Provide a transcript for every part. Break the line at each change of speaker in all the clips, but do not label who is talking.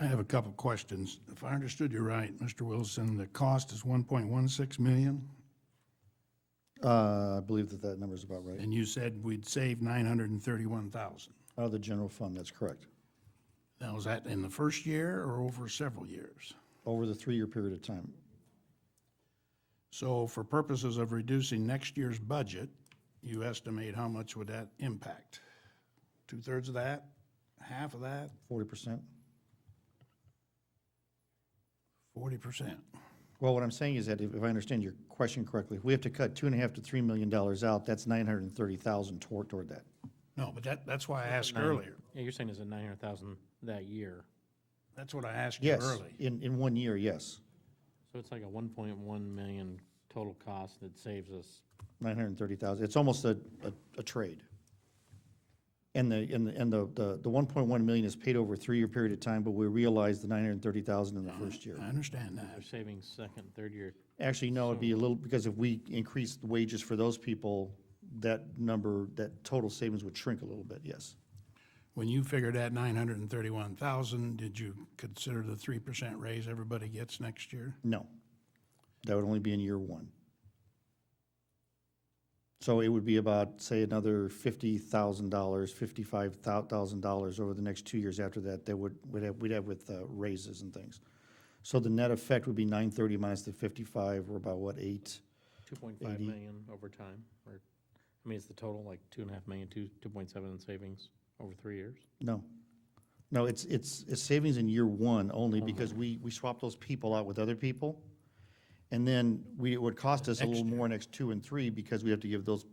I have a couple questions. If I understood you right, Mr. Wilson, the cost is 1.16 million,
Uh, I believe that that number is about right.
and you said we'd save 931,000.
Out of the general fund, that's correct.
Now, is that in the first year or over several years?
Over the three-year period of time.
So for purposes of reducing next year's budget, you estimate how much would that impact? Two-thirds of that? Half of that?
Forty percent?
40%?
Well, what I'm saying is that if if I understand your question correctly, if we have to cut two and a half to three million dollars out, that's nine hundred and thirty thousand toward, toward that.
No, but that, that's why I asked
Nine-
earlier.
Yeah, you're saying it's a nine hundred thousand that year,
That's what I asked you
Yes,
early.
in, in one year, yes,
so it's like a one point one million total cost that saves us.
nine hundred and thirty thousand. It's almost a, a, a trade. And the, and the, and the, the, the one point one million is paid over a three-year period of time, but we realize the nine hundred and thirty thousand in the first year.
I understand that.
They're saving second, third year.
Actually, no, it'd be a little, because if we increase the wages for those people, that number, that total savings would shrink a little bit, yes.
When you figured that 931,000, did you consider the 3% raise everybody gets next year?
No. That would only be in year one. So it would be about, say, another fifty thousand dollars, fifty-five thousand dollars over the next two years after that, that would, we'd have, we'd have with uh, raises and things. So the net effect would be nine thirty minus the fifty-five, we're about, what, eight?
Two point five million over time, or, I mean, it's the total, like two and a half million, two, two point seven in savings over three years.
No. No, it's, it's, it's savings in year one only because we, we swap those people out with other people. And then we, it would cost us a little more next two and three because we have to give those,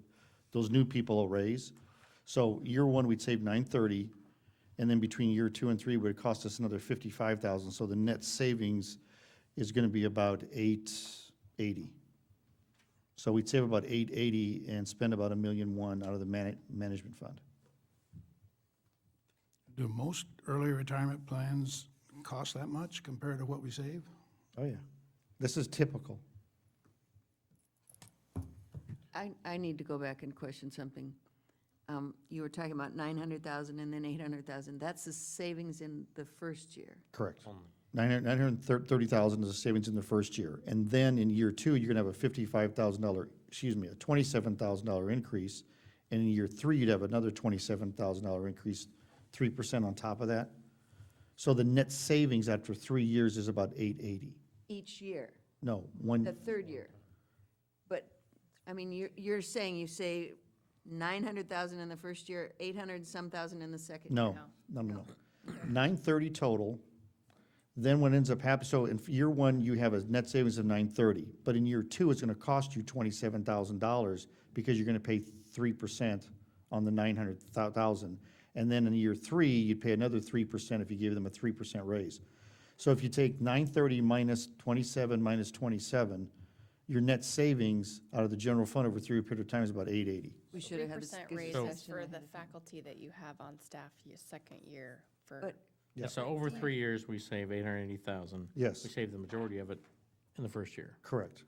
those new people a raise. So year one, we'd save nine thirty, and then between year two and three, it would cost us another fifty-five thousand. So the net savings is gonna be about eight eighty. So we'd save about eight eighty and spend about a million one out of the man, management fund.
Do most early retirement plans cost that much compared to what we save?
Oh, yeah. This is typical.
I, I need to go back and question something. Um, You were talking about 900,000 and then 800,000. That's the savings in the first year.
Correct. Nine hundred nine hundred thirty thousand is the savings in the first year. And then in year two, you're gonna have a fifty-five thousand dollar, excuse me, a twenty-seven thousand dollar increase. And in year three, you'd have another twenty-seven thousand dollar increase, three percent on top of that. So the net savings after three years is about eight eighty.
Each year,
No,
the
one,
third year. But, I mean, you're, you're saying you say 900,000 in the first year, 800 and some thousand in the second? year.
no, no, no, no. Nine thirty total. Then what ends up happening, so in year one, you have a net savings of nine thirty, but in year two, it's gonna cost you twenty-seven thousand dollars because you're gonna pay three percent on the nine hundred thousand. And then in year three, you'd pay another three percent if you gave them a three percent raise. So if you take nine thirty minus twenty-seven minus twenty-seven, your net savings out of the general fund over a three-year period of time is about eight eighty.
We should
Three
have had this.
percent
this
raises
discussion
for
ahead
the
of time.
faculty that you have on staff your second year for,
But
So over three years, we save eight hundred eighty thousand.
Yes.
We save the majority of it in the first year.
Correct.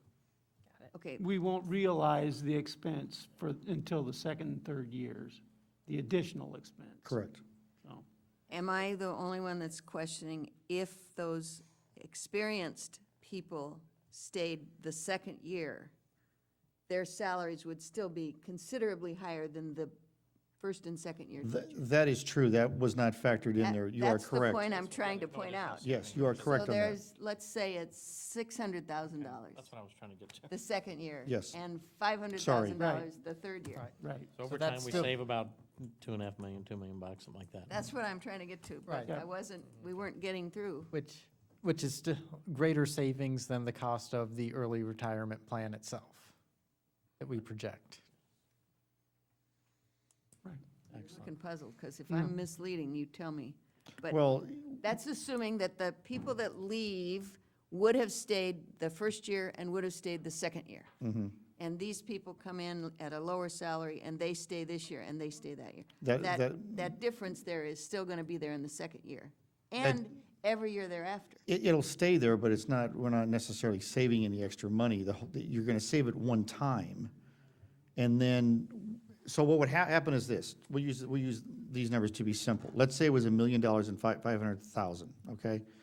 Okay,
we won't realize the expense for, until the second and third years, the additional expense.
Correct.
So,
am I the only one that's questioning if those experienced people stayed the second year, their salaries would still be considerably higher than the first and second year
Th-
teachers?
That is true. That was not factored in
That-
there. You are correct.
That's the point I'm trying to point out.
Yes, you are correct
So
on that.
there's, let's say it's six hundred thousand dollars
That's what I was trying to get to.
the second year.
Yes.
And five hundred thousand dollars
Right.
the third year.
right.
So over time,
that's
we
still-
save about two and a half million, two million bucks, something like that.
That's what I'm trying to get to, but
Right.
I wasn't, we weren't getting through.
Which, which is still greater savings than the cost of the early retirement plan itself that we project.
I'm looking puzzled, because if I'm misleading, you tell me. But
Well,
that's assuming that the people that leave would have stayed the first year and would have stayed the second year. And these people come in at a lower salary, and they stay this year, and they stay that year.
That-
That,
that-
that difference there is still going to be there in the second year, and every year thereafter.
it, it'll stay there, but it's not, we're not necessarily saving any extra money. The, whole- you're gonna save it one time. And then, so what would hap, happen is this, we'll use, we'll use these numbers to be simple. Let's say it was a million dollars and five, five hundred thousand, okay?